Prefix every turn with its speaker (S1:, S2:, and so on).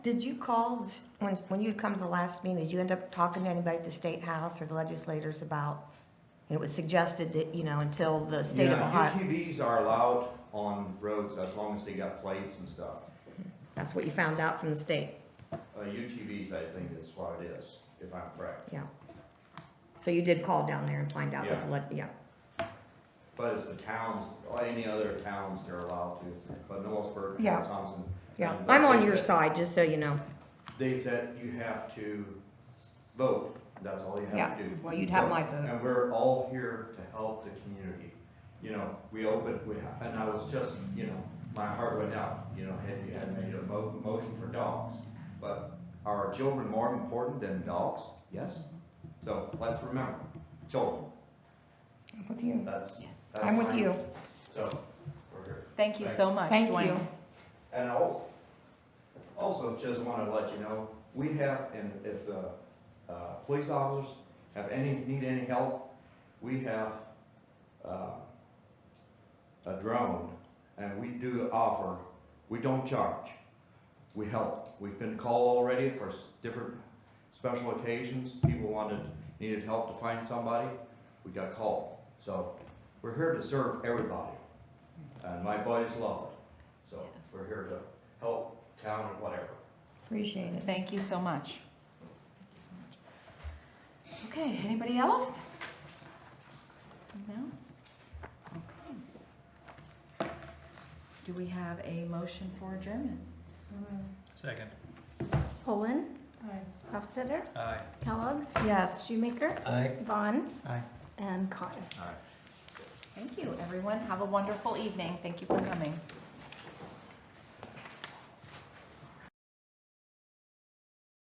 S1: Did you call, the s- when, when you'd come to the last meeting, did you end up talking to anybody at the State House or the legislators about, it was suggested that, you know, until the state of
S2: Yeah,
S1: Ohio,
S3: UTVs are allowed on roads as long as they got plates and stuff.
S1: that's what you found out from the state,
S3: Uh, UTVs, I think is what it is, if I'm correct.
S1: yeah. So you did call down there and find out what the,
S3: Yeah.
S1: leg- yeah,
S3: But it's the towns, or any other towns they're allowed to, but Norrisburg, and
S1: Yeah.
S3: Thompson.
S1: yeah.
S3: and- uh,
S1: I'm on
S3: they
S1: your
S3: said-
S1: side, just so you know.
S3: They said you have to vote, that's all you have to do.
S1: Yeah, well, you'd have
S3: So-
S1: my vote.
S3: And we're all here to help the community. You know, we opened, we, and I was just, you know, my heart went out, you know, had you had made a mo- motion for dogs. But are children more important than dogs? Yes. So let's remember, children,
S1: I'm with you.
S3: that's. that's
S1: I'm with
S3: mine.
S1: you.
S3: So, we're here.
S4: Thank you so much,
S1: Thank
S4: Dwayne.
S1: you.
S3: And al- also, just want to let you know, we have, and if the uh, police officers have any, need any help, we have uh, a drone, and we do offer, we don't charge, we help. We've been called already for s- different special occasions, people wanted, needed help to find somebody, we got called. So, we're here to serve everybody, and my buddies love it. So we're here to help town and whatever.
S1: Appreciate it.
S4: Thank you so much. Okay, anybody else? No? Okay. Do we have a motion for adjournment?
S5: Second.
S6: Poland. Hofstadter.
S5: Aye.
S6: Kellogg.
S1: Yes.
S6: Shoemaker.
S5: Aye.
S6: Vaughn.
S5: Aye.
S6: And Con.
S3: All right.
S4: Thank you, everyone. Have a wonderful evening. Thank you for coming.